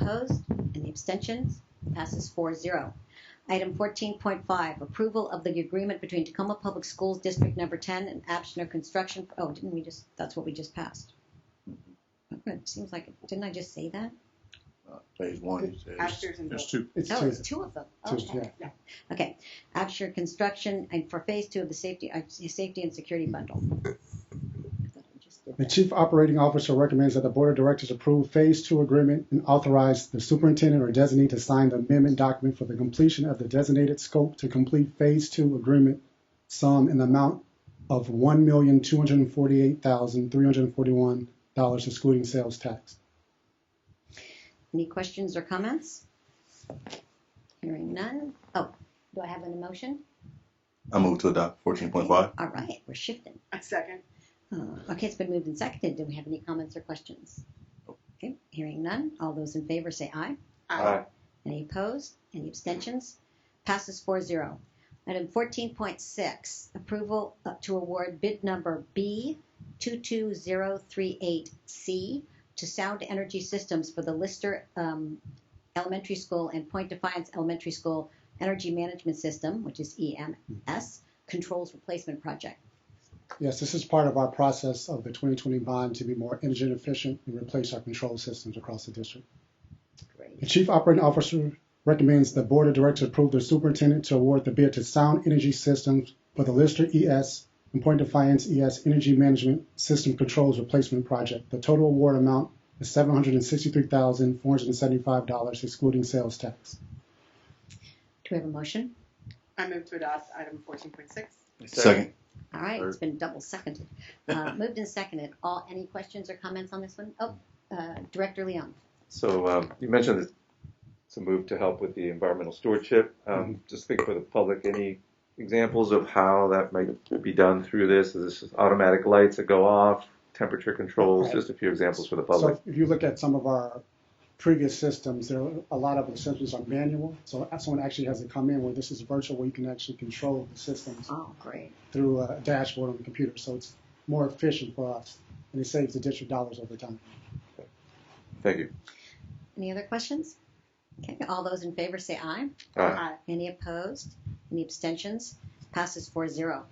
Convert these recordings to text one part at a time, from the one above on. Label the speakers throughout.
Speaker 1: opposed? Any abstentions? Passes 4-0. Item 14.5, approval of the agreement between Tacoma Public Schools District Number 10 and Absher Construction, oh, didn't we just, that's what we just passed? Okay, Seems like, it. didn't I just say that?
Speaker 2: Uh, Phase one is,
Speaker 3: Ashters
Speaker 2: is,
Speaker 3: and
Speaker 2: is two.
Speaker 4: It's
Speaker 1: Oh, it's
Speaker 4: two.
Speaker 1: two of them.
Speaker 4: two,
Speaker 1: Okay.
Speaker 4: yeah.
Speaker 1: Okay, Absher Construction, and for Phase 2 of the safety, uh, safety and security bundle. I thought I just did
Speaker 4: The
Speaker 1: that.
Speaker 4: chief operating officer recommends that the board of directors approve phase two agreement and authorize the superintendent or designee to sign the amendment document for the completion of the designated scope to complete phase two agreement sum in the amount of one million two hundred and forty-eight thousand three hundred and forty-one dollars excluding sales tax.
Speaker 1: Any questions or comments? Hearing none. Oh, do I have an emotion?
Speaker 2: I move to adopt fourteen point five.
Speaker 1: All right, we're shifting.
Speaker 3: A second.
Speaker 1: Uh, Okay, it's been moved and seconded. Do we have any comments or questions? Okay, hearing none. All those in favor say aye.
Speaker 3: Aye.
Speaker 1: Any opposed? Any abstentions? Passes 4-0. Item 14.6, approval uh, to award bid number B22038C to Sound Energy Systems for the Lister um, Elementary School and Point Defiance Elementary School Energy Management System, which is EMS, Controls Replacement Project.
Speaker 4: Yes, this is part of our process of the 2020 bond to be more energy efficient and replace our control systems across the district. The
Speaker 1: Great.
Speaker 4: Chief Operating Officer recommends the Board of Directors approve the superintendent to award the bid to Sound Energy Systems for the Lister ES and Point Defiance ES Energy Management System Controls Replacement Project. The total award amount is $763,475 excluding sales tax.
Speaker 1: Do we have a motion?
Speaker 3: I move to adopt item fourteen point six.
Speaker 2: Second.
Speaker 1: All right,
Speaker 2: Or-
Speaker 1: it's been double seconded. Uh, Moved and seconded. All, any questions or comments on this one? Oh, uh, Director Leon.
Speaker 5: So um, you mentioned this, it's a move to help with the environmental stewardship.
Speaker 6: Mm-hmm.
Speaker 5: Um, Just think for the public, any examples of how that might be done through this? Is this automatic lights that go off, temperature controls?
Speaker 4: Right.
Speaker 5: Just a few examples for the public.
Speaker 4: So if you look at some of our previous systems, there are a lot of the systems are manual. So someone actually has to come in where this is virtual, where you can actually control the systems.
Speaker 1: Oh, great.
Speaker 4: through a dashboard on the computer, so it's more efficient for us, and it saves the district dollars over time.
Speaker 5: Thank you.
Speaker 1: Any other questions? Okay, all those in favor say aye.
Speaker 5: Uh,
Speaker 1: Any opposed? Any abstentions? Passes 4-0.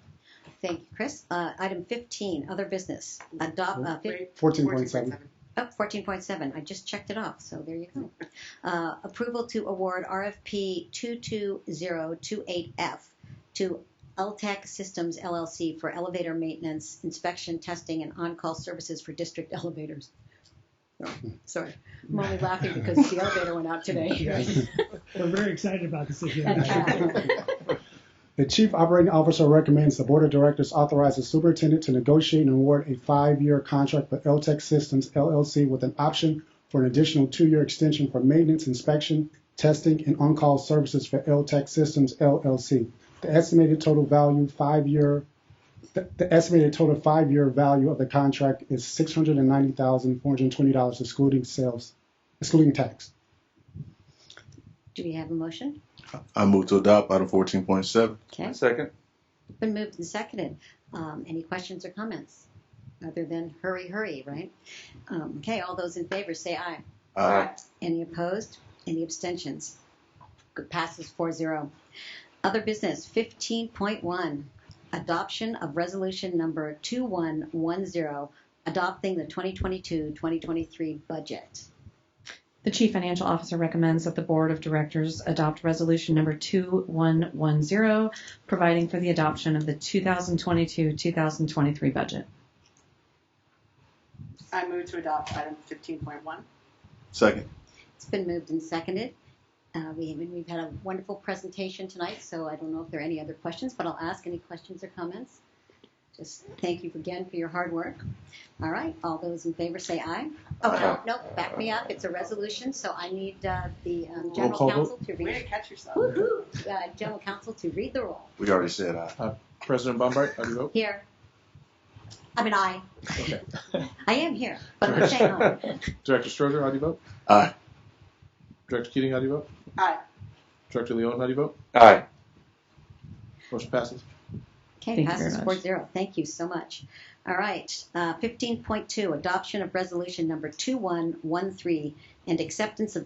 Speaker 1: Thank you, Chris. Uh, Item 15, other business. Adopt, uh, fif-
Speaker 3: Wait,
Speaker 4: 14.7.
Speaker 3: 14.7.
Speaker 1: oh, 14.7. I just checked it off, so there you go. Uh, Approval to award RFP 22028F to LTAC Systems LLC for elevator maintenance, inspection, testing, and on-call services for district elevators. Oh, Sorry, I'm only laughing because the elevator went out today.
Speaker 7: We're very excited about this issue.
Speaker 1: Uh,
Speaker 4: The chief operating officer recommends the board of directors authorize the superintendent to negotiate and award a five-year contract with LTEC Systems LLC with an option for an additional two-year extension for maintenance, inspection, testing, and on-call services for LTEC Systems LLC. The estimated total value five-year, the, the estimated total five-year value of the contract is six hundred and ninety thousand four hundred and twenty dollars excluding sales, excluding tax.
Speaker 1: Do we have a motion?
Speaker 2: I move to adopt item fourteen point seven.
Speaker 1: Okay,
Speaker 5: Second?
Speaker 1: been moved and seconded. Um, any questions or comments? Other than hurry, hurry, right? Um, okay, all those in favor say aye.
Speaker 2: Aye.
Speaker 1: Any opposed? Any abstentions? Good, Passes 4-0. Other business, 15.1, adoption of resolution number 2110, adopting the 2022-2023 budget.
Speaker 8: The Chief Financial Officer recommends that the Board of Directors adopt Resolution Number 2110, providing for the adoption of the 2022-2023 budget.
Speaker 3: I move to adopt item fifteen point one.
Speaker 2: Second.
Speaker 1: It's been moved and seconded. Uh, we, we've had a wonderful presentation tonight, so I don't know if there are any other questions, but I'll ask any questions or comments. Just thank you again for your hard work. All right, all those in favor say aye. Oh, no,
Speaker 5: Aye.
Speaker 1: no, back me up. It's a resolution, so I need uh, the um,
Speaker 2: Roll
Speaker 1: general
Speaker 2: call vote.
Speaker 1: counsel to
Speaker 3: Way to
Speaker 1: read.
Speaker 3: catch yourself.
Speaker 1: Woo-hoo! Uh, general counsel to read the roll.
Speaker 2: We already said aye.
Speaker 6: President Bombard, how do you vote?
Speaker 1: Here. I mean, I.
Speaker 6: Okay.
Speaker 1: I am here, but I'm saying aye.
Speaker 6: Director Strozer, how do you vote?
Speaker 2: Aye.
Speaker 6: Director Keating, how do you vote?
Speaker 3: Aye.
Speaker 6: Director Leon, how do you vote?
Speaker 5: Aye.
Speaker 6: Motion passes.
Speaker 1: Okay,
Speaker 8: Thank you
Speaker 1: passes
Speaker 8: very
Speaker 1: four
Speaker 8: much.
Speaker 1: zero. Thank you so much. All right, uh, fifteen point two, adoption of resolution number two one one three and acceptance of